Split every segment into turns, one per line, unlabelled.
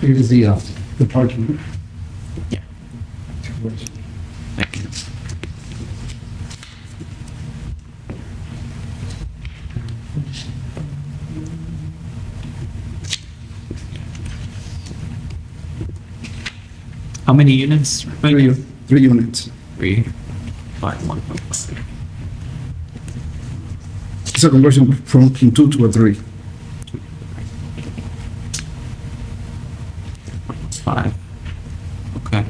Here's the, uh, the parking.
Yeah. Thank you. How many units? right
Three,
now?
three units.
Three. Five, one.
It's a conversion from from two to a three.
Five. Okay.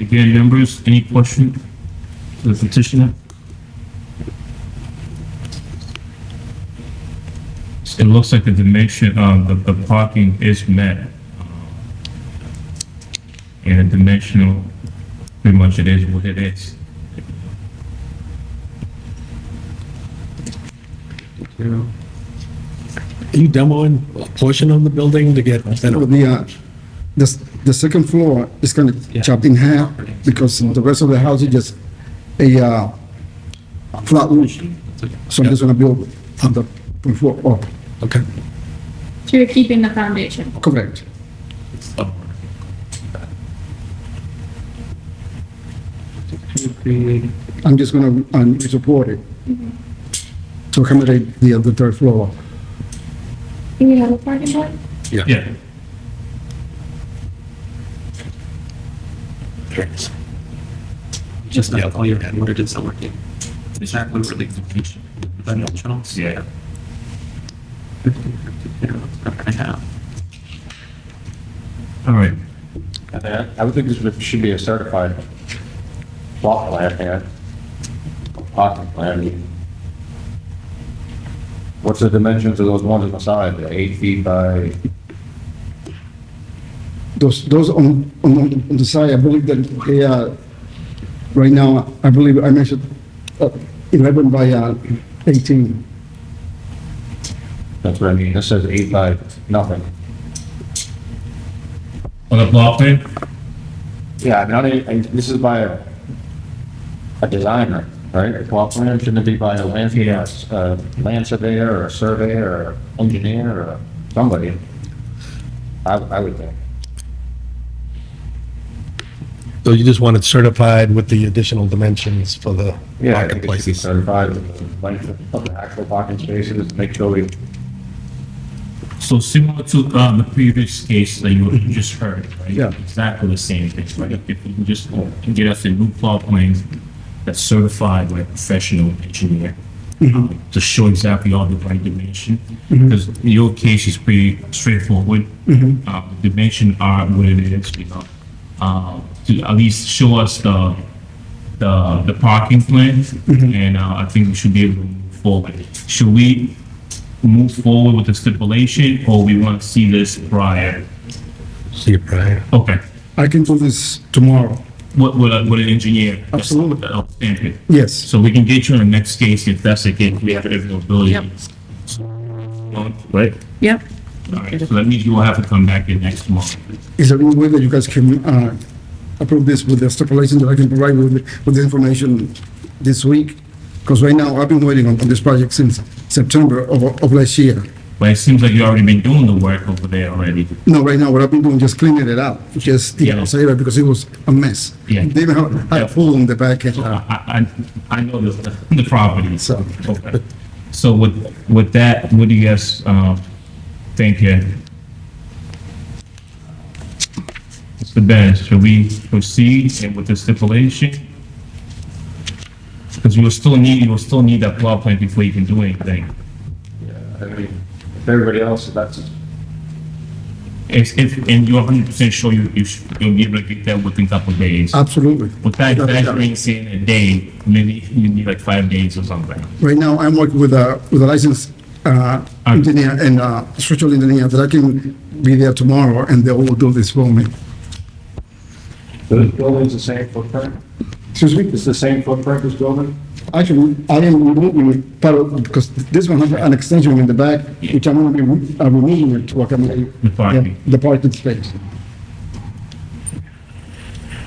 Again, members, any question to the petitioner? It looks like the dimension, um, the, the parking is met. Uh, And the dimensional, pretty much it is what it is.
Zero.
Are you demoing a portion of the building to get,
So The, uh, the, s- the second floor is kind of chopped in half because the rest of the house is just a, uh, flat roof. So I'm just gonna build on the front floor Oh, up.
okay,
So you're keeping the foundation.
Correct.
Two, three,
I'm just gonna, um, support it to accommodate the, the third floor.
Do we have a parking lot?
Yeah.
eight. Just
Yeah.
not all your head, what it is that working. Is that what really? Dimensionals?
Yeah.
Fifty, fifty, zero, seven and a half.
All right.
And then I would think this would- should be a certified plot plan here. Parking plan. What's the dimensions of those ones on the side? They're Eight feet by,
Those, those on, on, on the side, I believe that they are, right now, I believe I measured uh, 11 by uh, 18.
that's what I mean. This says eight by nothing.
On the block plan?
Yeah, I mean, I don't- I- this is by a, a designer, right? A plot plan shouldn't it be by a land, uh, land surveyor or a surveyor or engineer or somebody. I, I would think.
so you just want it certified with the additional dimensions for the
Yeah, I think it should be
marketplaces?
certified with the length of the actual parking spaces, make sure we uh,
So similar to, um, the previous case that you just heard, right?
Yeah.
Exactly the same thing, right? If we can just get us a new plot plan that's certified by a professional engineer um, to show exactly all the right dimension, because your case is pretty straightforward. Uh, dimension are what it is, you know? Uh, to at least show us the, the, the parking plan, and, uh, I think we should be able to move forward. Should we move forward with the stipulation, or we want to see this prior?
See you, Brian.
Okay,
I can do this tomorrow.
what, what, a- what an engineer. uh,
Absolutely.
That'll stamp it.
Yes,
So we can get you in the next case if that's the case, we have availability.
Yep.
Right?
Yep.
All right, so that means you will have to come back in next month.
is there any way that you guys can uh, approve this with the stipulation that I can provide with, with the information this week? Because right now, I've been waiting on on this project since September of, of last year.
But it seems like you already been doing the work over there already.
No, right now, what I've been doing, just cleaning it up, just the
Yeah.
outside, because it was a mess.
Yeah.
They even had- had a pool in the back end.
So Uh, I, I, I know the, the property, so.
So-
okay. So with, with that, what do you guys, um, think here? Mr. Ben, should we proceed and with the stipulation? Because you will still need, you will still need that plot plan before you can do anything.
I mean, if everybody else, that's,
If, if, and you're hundred percent sure you, you should, you'll be able to get that within a couple of days.
Absolutely.
With that, that brings in a day, maybe you need like five days or something.
Right now, I'm working with a, with a licensed uh, engineer and uh, structural engineer that I can be there tomorrow and they will do this for me.
the building's the same footprint?
Excuse me?
It's the same footprint this building?
Actually, I am removing part of, because this one has an extension in the back, which I'm going to be re- uh, removing it to accommodate
The parking.
the- the parking space.